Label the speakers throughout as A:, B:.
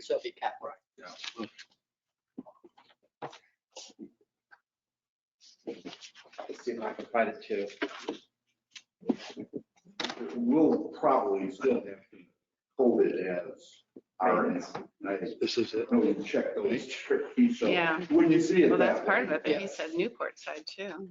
A: still be kept. Right.
B: Let's see if I can find it too.
C: We'll probably still have to hold it as ours.
D: This is it.
C: Really check those tricky, so
E: Yeah.
C: when you see it.
E: Well, that's
C: that
E: part of
C: way,
E: it, but he said Newport side too.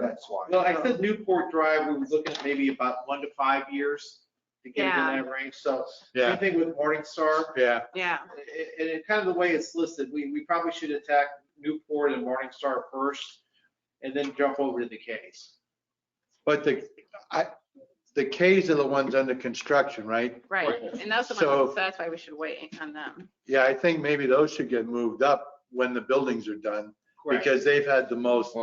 C: That's why.
B: Well, I said Newport Drive, we were looking at maybe about one to five years to get it in
E: Yeah.
B: that range. So same
D: Yeah,
B: thing with Morningstar.
D: yeah.
E: Yeah,
B: it- and it kind of the way it's listed, we, we probably should attack Newport and Morningstar first and then jump over to the Ks.
D: But the, I, the Ks are the ones under construction, right?
E: right. And those are the
D: So-
E: ones, that's why we should wait on them.
D: Yeah, I think maybe those should get moved up when the buildings are done
B: Correct.
D: because they've had the most.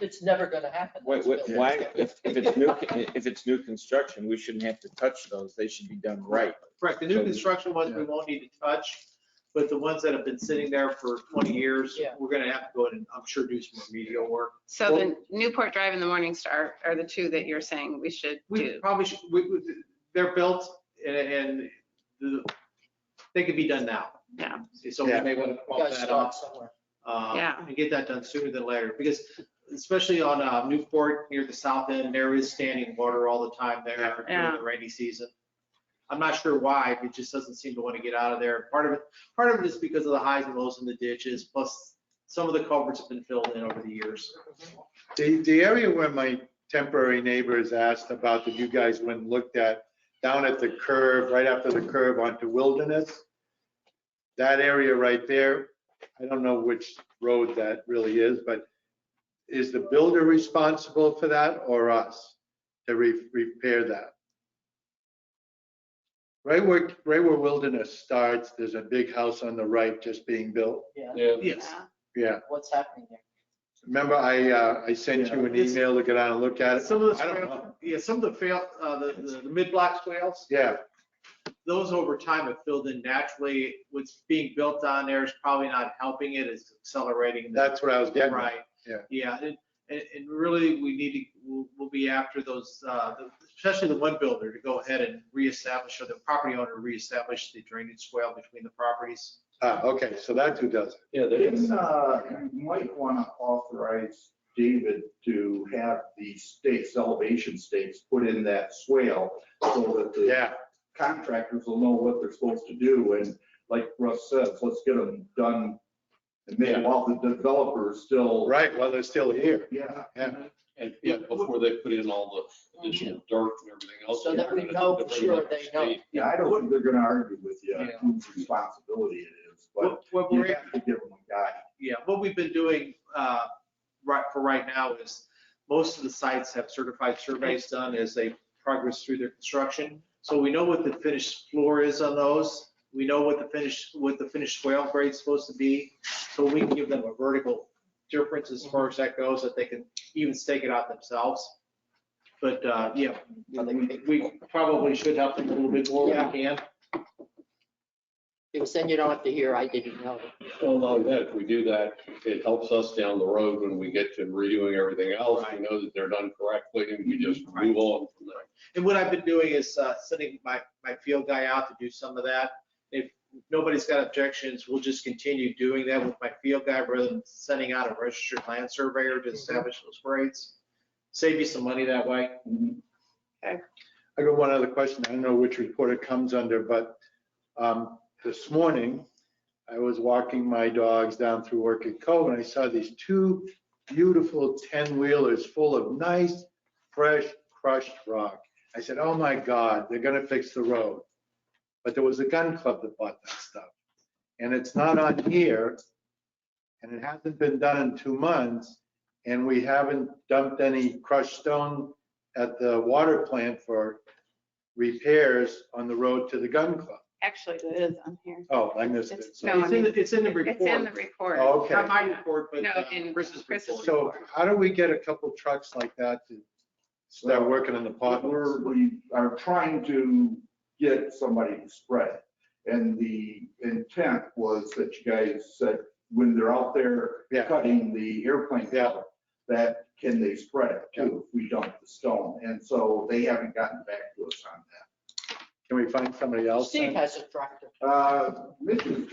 A: It's never gonna happen.
F: Wait, wait,
D: Yeah.
F: why, if, if it's new, if it's new construction, we shouldn't have to touch those. They should be done right.
B: Correct. The new construction ones, we won't need to touch, but the ones that have been sitting there for 20 years,
A: Yeah.
B: we're going to have to go in and I'm sure do some remedial work.
E: So the Newport Drive and the Morning Star are the two that you're saying we should
B: We
E: do.
B: probably should, we, we- they're built and, and the- they could be done now.
E: Yeah.
B: So we may want to
A: You
B: bump
A: guys
B: that up.
A: start somewhere.
B: um,
E: Yeah.
B: and get that done sooner than later, because especially on uh, Newport near the south end, there is standing water all the time there during
E: Yeah.
B: the rainy season. I'm not sure why, but it just doesn't seem to want to get out of there. Part of it, part of it is because of the highs and lows in the ditches, plus some of the culverts have been filled in over the years.
D: The, the area where my temporary neighbors asked about that you guys went and looked at, down at the curve, right after the curve onto Wilderness. That area right there, I don't know which road that really is, but is the builder responsible for that or us to re- repair that? Right where, right where Wilderness starts, there's a big house on the right just being built.
A: Yeah,
B: Yes.
E: Yeah.
D: Yeah,
A: what's happening there?
D: remember I, uh, I sent you an email to go down and look at it?
B: Some of
D: I don't
B: the,
D: know.
B: yeah, some of the fail, uh, the, the- the mid-block swales,
D: Yeah,
B: those over time have filled in naturally. What's being built on there is probably not helping it, it's accelerating the
D: That's what I was getting at.
B: Right.
D: Yeah.
B: Yeah, and, and, and really, we need to, we'll, we'll be after those, uh, the- especially the one builder to go ahead and reestablish, or the property owner reestablish the drainage swale between the properties.
D: Ah, okay, so that's who does it.
F: Yeah,
C: It's, uh, you might want to authorize David to have the stakes, elevation stakes, put in that swale so that the
D: Yeah,
C: contractors will know what they're supposed to do, and like Russ says, let's get them done. And maybe while the developer's still.
D: right, well, they're still here.
C: Yeah.
D: Yeah.
G: Mm-hmm. And, yeah, before they put in all the additional dirt and everything else.
A: So that we know for sure they know.
C: Yeah, I don't think they're gonna argue with you
B: Yeah.
C: whose responsibility it is, but
B: What, what
C: you
B: we're,
C: have to give them a guide.
B: yeah, what we've been doing, uh, right, for right now is most of the sites have certified surveys done as they progress through their construction. So we know what the finished floor is on those. We know what the finished, what the finished swale grade's supposed to be. So we can give them a vertical difference as far as that goes, that they can even stake it out themselves. But, uh, yeah,
A: Are they
B: we we probably should help them a little bit more if we can.
A: Because then you don't have to hear, I didn't know.
G: Well, not only that, if we do that, it helps us down the road when we get to redoing everything else. We know that they're done correctly and we just move on from there.
B: And what I've been doing is uh, sending my, my field guy out to do some of that. If nobody's got objections, we'll just continue doing that with my field guy rather than sending out a registered land surveyor
E: Mm-hmm.
B: to establish those grades. Save you some money that way.
D: I got one other question. I don't know which report it comes under, but um, this morning, I was walking my dogs down through Orchid Cove and I saw these two beautiful 10-wheelers full of nice, fresh crushed rock. I said, oh my God, they're gonna fix the road. But there was a gun club that bought that stuff. And it's not on here, and it hasn't been done in two months, and we haven't dumped any crushed stone at the water plant for repairs on the road to the gun club.
E: Actually, it is on here.
D: Oh, I missed it.
E: It's-
D: So-
E: No, I
B: It's in,
E: mean,
B: the- it's in the
E: it's in the
B: report.
E: report.
D: Oh, okay.
B: Not my report, but
E: No,
B: uh,
E: in
B: Chris's
E: Chris's
B: report.
D: So how do we get a couple trucks like that to start working in the
C: But
D: potholes?
C: we're, we are trying to get somebody to spread. it. And the intent was that you guys said, when they're out there
D: Yeah.
C: cutting the airplane
D: Yeah.
C: cover, that can they spread it too, if we dump the stone? And so they haven't gotten back to us on
D: Can we find somebody else?
A: Steve
D: then?
A: has a tractor.
C: that. Uh, Mitch is